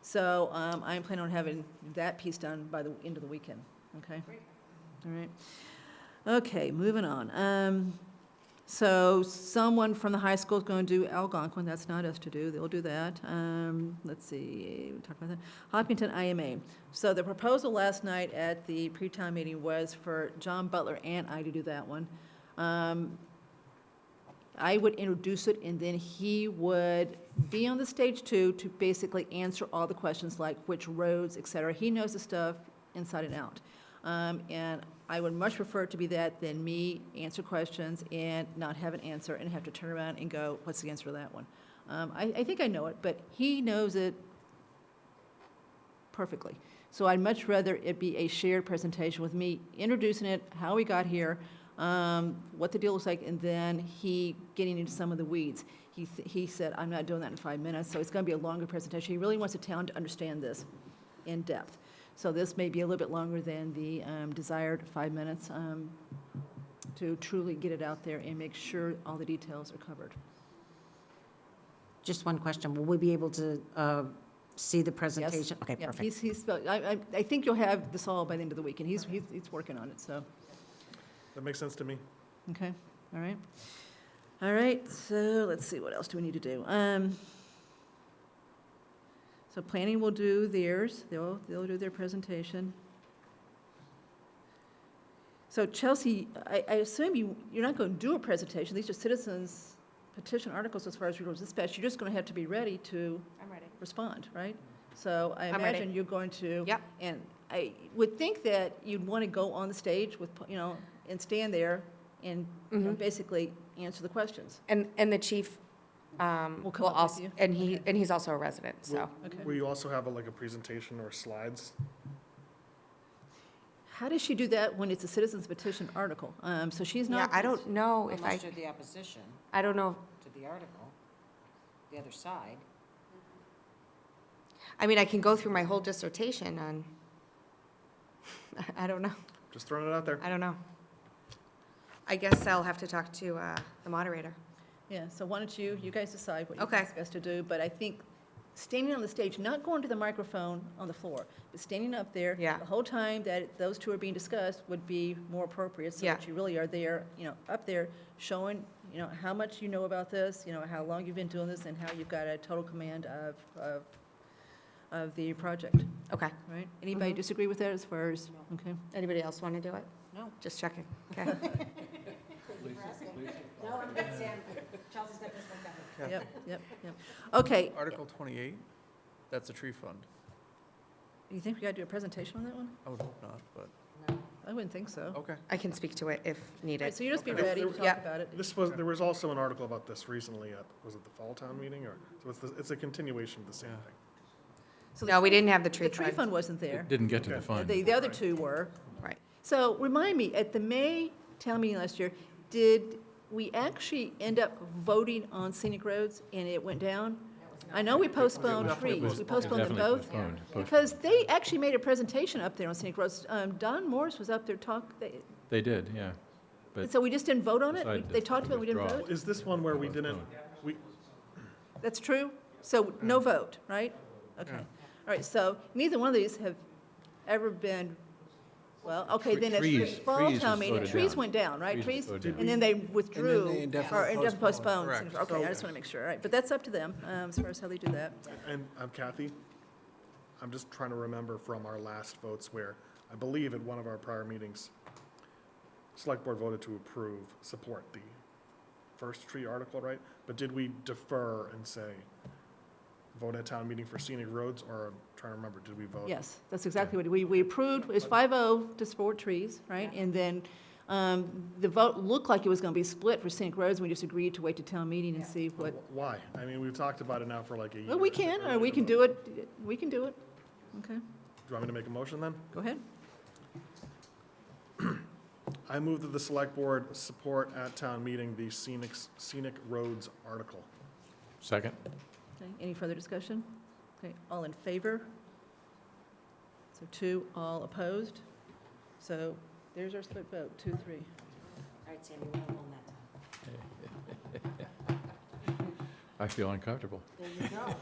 So um, I'm planning on having that piece done by the end of the weekend, okay? All right. Okay, moving on. Um, So someone from the high school is going to do Algonquin, that's not us to do, they'll do that. Um, Let's see, we talked about that. Hopkinton IMA. So the proposal last night at the pre-town meeting was for John Butler and I to do that one. Um, I would introduce it, and then he would be on the stage too, to basically answer all the questions like which roads, et cetera. He knows the stuff inside and out. Um, and I would much prefer it to be that than me answer questions and not have an answer and have to turn around and go, what's the answer to that one? Um, I, I think I know it, but he knows it perfectly. So I'd much rather it be a shared presentation with me introducing it, how we got here, um, what the deal looks like, and then he getting into some of the weeds. He, s- he said, I'm not doing that in five minutes, so it's gonna be a longer presentation. He really wants the town to understand this in depth. So this may be a little bit longer than the, um, desired five minutes, um, to truly get it out there and make sure all the details are covered. Just one question. Will we be able to uh, see the presentation? Okay, Yeah, perfect. he's, he's, I, I, I think you'll have this all by the end of the week, and he's, he's, he's working on it, so. That makes sense to me. Okay, all right. All right, so let's see, what else do we need to do? Um, so planning will do theirs, they'll, they'll do their presentation. So Chelsea, I, I assume you, you're not going to do a presentation, these are citizens petition articles as far as regional dispatch, you're just going to have to be ready to I'm ready. respond, right? So I I'm ready. imagine you're going to. Yep. And I would think that you'd want to go on the stage with, you know, and stand there and you know, Mhm. basically answer the questions. And, and the chief, um, Will will come up with also, you. and he, Okay. and he's also a resident, so. Will- Okay. Will you also have a- like a presentation or slides? How does she do that when it's a citizens petition article? Um, so she's Yeah, not. I don't know if I, Unless you're the opposition I don't know, to the article, the other side. I mean, I can go through my whole dissertation on, I don't know, Just throwing it out there. I don't know. I guess I'll have to talk to, uh, the moderator. Yeah, so why don't you, you guys decide what you Okay. think is best to do, but I think standing on the stage, not going to the microphone on the floor, but standing up there. Yeah. The whole time that those two are being discussed would be more appropriate, so Yeah. that you really are there, you know, up there, showing, you know, how much you know about this, you know, how long you've been doing this, and how you've got a total command of, of, of the project, Okay. right? Anybody Mm-hmm. Mhm. disagree with that as far as, okay? Anybody else want to do it? No. Just checking. Okay. No, I'm good, Sam. Chelsea's got this one covered. Yep, yep, yep. Okay, Article 28, that's a tree fund. you think we gotta do a presentation on that one? I would hope not, but, I wouldn't think so. okay. I can speak to it if All right, needed. so you just be Okay. ready to talk Yep. about it. This was, there was also an article about this recently at, was it the Fall Town Meeting or? So it's, the- it's a continuation of the same Yeah. thing. So the No, we didn't have the The tree tree fund. fund wasn't there. Didn't get to Okay. the fund. The, the other two were. Right. So remind me, at the May town meeting last year, did we actually end up voting on scenic roads and it went down? I know we postponed trees, we postponed them Definitely both, postponed, postponed. because they actually made a presentation up there on scenic roads. Um, Don Morris was up there talk, they- They did, yeah. But- so we just didn't vote on it? We- Decided to They talked about it, we didn't withdraw. vote? Is this one where we didn't, we, That's true? So no vote, right? Okay. All right, so neither one of these have ever been, well, okay, then at the Trees- fall trees town was meeting, voted trees down. went down, right? Trees Trees, was voted down. and then they withdrew. they Or indefinitely indefinitely postponed. postponed. Correct. Okay, I just want to make sure, all right. But that's up to them, um, as far as how they do that. and I'm Kathy, I'm just trying to remember from our last votes where, I believe at one of our prior meetings, Select Board voted to approve, support the first tree article, right? But did we defer and say, vote at town meeting for scenic roads, or, I'm trying to remember, did we vote? Yes, that's exactly what, we, we approved, it was five-oh to support trees, right? And then, um, the vote looked like it was going to be split for scenic roads, we just agreed to wait to town meeting and see what Wh- Why? I mean, we've talked about it now for like a year. Well, we can, or we can do it, we can do it. Okay, Do you want me to make a motion then? go ahead. I move that the select board support at town meeting the scenic, scenic roads article. Second? Okay, any further discussion? Okay, all in favor? So two, all opposed? So there's our split vote, two, three. All right, Sam, you went on that time. I feel uncomfortable. There you go.